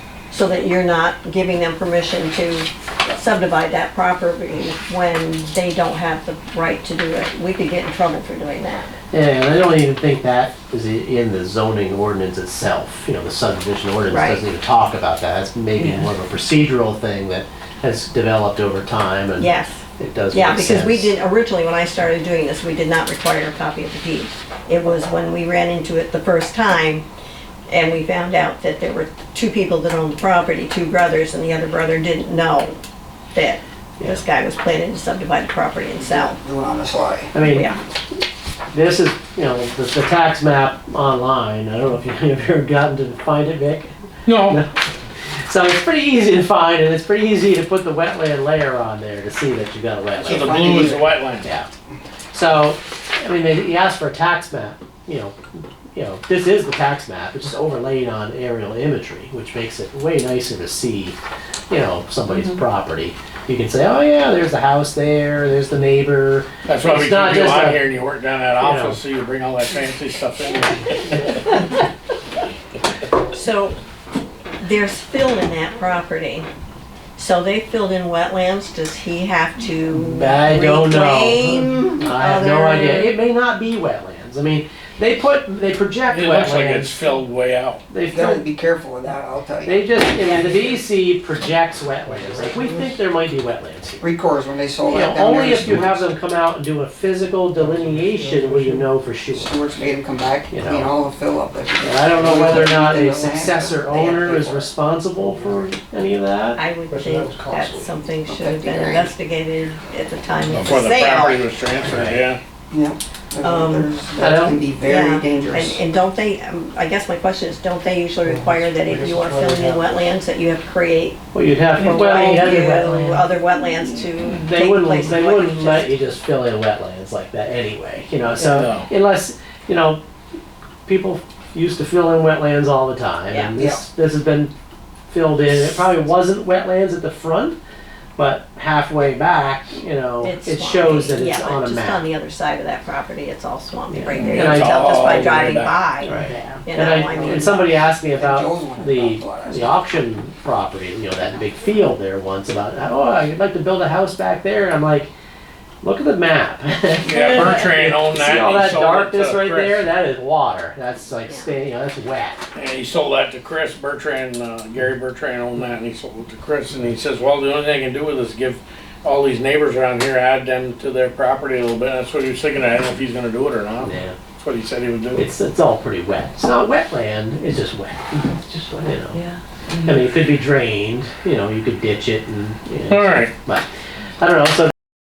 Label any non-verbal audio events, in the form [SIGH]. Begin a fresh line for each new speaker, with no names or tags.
so that you're not giving them permission to subdivide that property when they don't have the right to do it. We could get in trouble for doing that.
Yeah, and I don't even think that is i- in the zoning ordinance itself. You know, the subdivision ordinance
Right.
doesn't even talk about that. That's maybe
Yeah.
more of a procedural thing that has developed over time and
Yes.
it does
Yeah,
make
because we
sense.
did, originally, when I started doing this, we did not require a copy of the deed. It was when we ran into it the first time, and we found out that there were two people that owned the property, two brothers, and the other brother didn't know that this guy was planning to subdivide the property and sell.
doing on the sly.
I mean,
Yeah,
this is, you know, the, the tax map online. I don't know if you [LAUGHS] have ever gotten to find it, Vic.
No,
So it's pretty easy to find and it's pretty easy to put the wetland layer on there to see that you've got a wetland.
So
so the blue is the wetland.
Yeah. So, I mean, they, he asked for a tax map, you know, you know, this is the tax map, it's just overlaid on aerial imagery, which makes it way nicer to see, you know, somebody's property. You can say, oh yeah, there's the house there, there's the neighbor.
That's why we
It's not
keep you
just a-
on here and you work down that
you know.
office, so you bring all that fancy stuff in.
so there's fill in that property. So they filled in wetlands, does he have to
I don't know.
reclaim
I have no
other-
idea. It may not be wetlands. I mean, they put, they project
It looks like it's
wetlands.
filled way out.
They
You gotta
fill-
be careful with that, I'll tell you.
They just, you know, the DEC projects wetlands. Like, we think there might be wetlands here.
Recourse when they sold
You know,
that down there.
only if you have them come out and do a physical delineation will you know for sure.
Stewart's made them come back,
You
clean
know.
all the fill up.
And I don't know whether or not a successor owner is responsible for any of that.
I would
But that
think that
was costly.
something should have
Fifty
been
grand.
investigated at the time of
Before
the
the property
sale.
was transferred,
Right.
yeah.
Yeah.
Um,
There's-
I
That
don't-
can be
Yeah.
very
And,
dangerous.
and don't they, um, I guess my question is, don't they usually require that if you are filling in wetlands, that you have to create
Well, you'd have,
or
to well, you
you
have
other wetlands to
to,
take
they wouldn't,
place of
they
what you
wouldn't
just-
let you just fill in wetlands like that anyway, you know, so
No.
unless, you know, people used to fill in wetlands all the time and
Yeah.
this, this has been filled in. It probably wasn't wetlands at the front, but halfway back, you know,
It's
it
swampy.
shows that
Yeah,
it's
but
on a
Just
map.
on the other side of that property, it's all swampy
Yeah.
right there. You
And I-
can tell just
All
by
the way
driving
back.
by.
Right.
You
And,
know,
I,
I mean,
and somebody asked me
Joe's
about
one
the,
about
the auction property, you know, that big field there once about, oh, I'd like to build a house back there. And I'm like, look at the map. [LAUGHS]
Yeah, Bertrand owned that
See all
and
that
sold it to
darkness right
Chris.
there? That is water. That's like
Yeah.
staying, you know, that's wet.
And he sold that to Chris Bertrand, uh, Gary Bertrand owned that, and he sold it to Chris, and he says, well, the only thing I can do with this is give all these neighbors around here, add them to their property a little bit, that's what he was thinking, I don't know if he's gonna do it or not,
Yeah.
that's what he said he would do.
It's, it's all pretty wet. It's not wetland, it's just wet. It's just, wet, you know. Yeah. I mean, it could be drained, you know, you could ditch it and, you know,
Alright,
But I don't know. So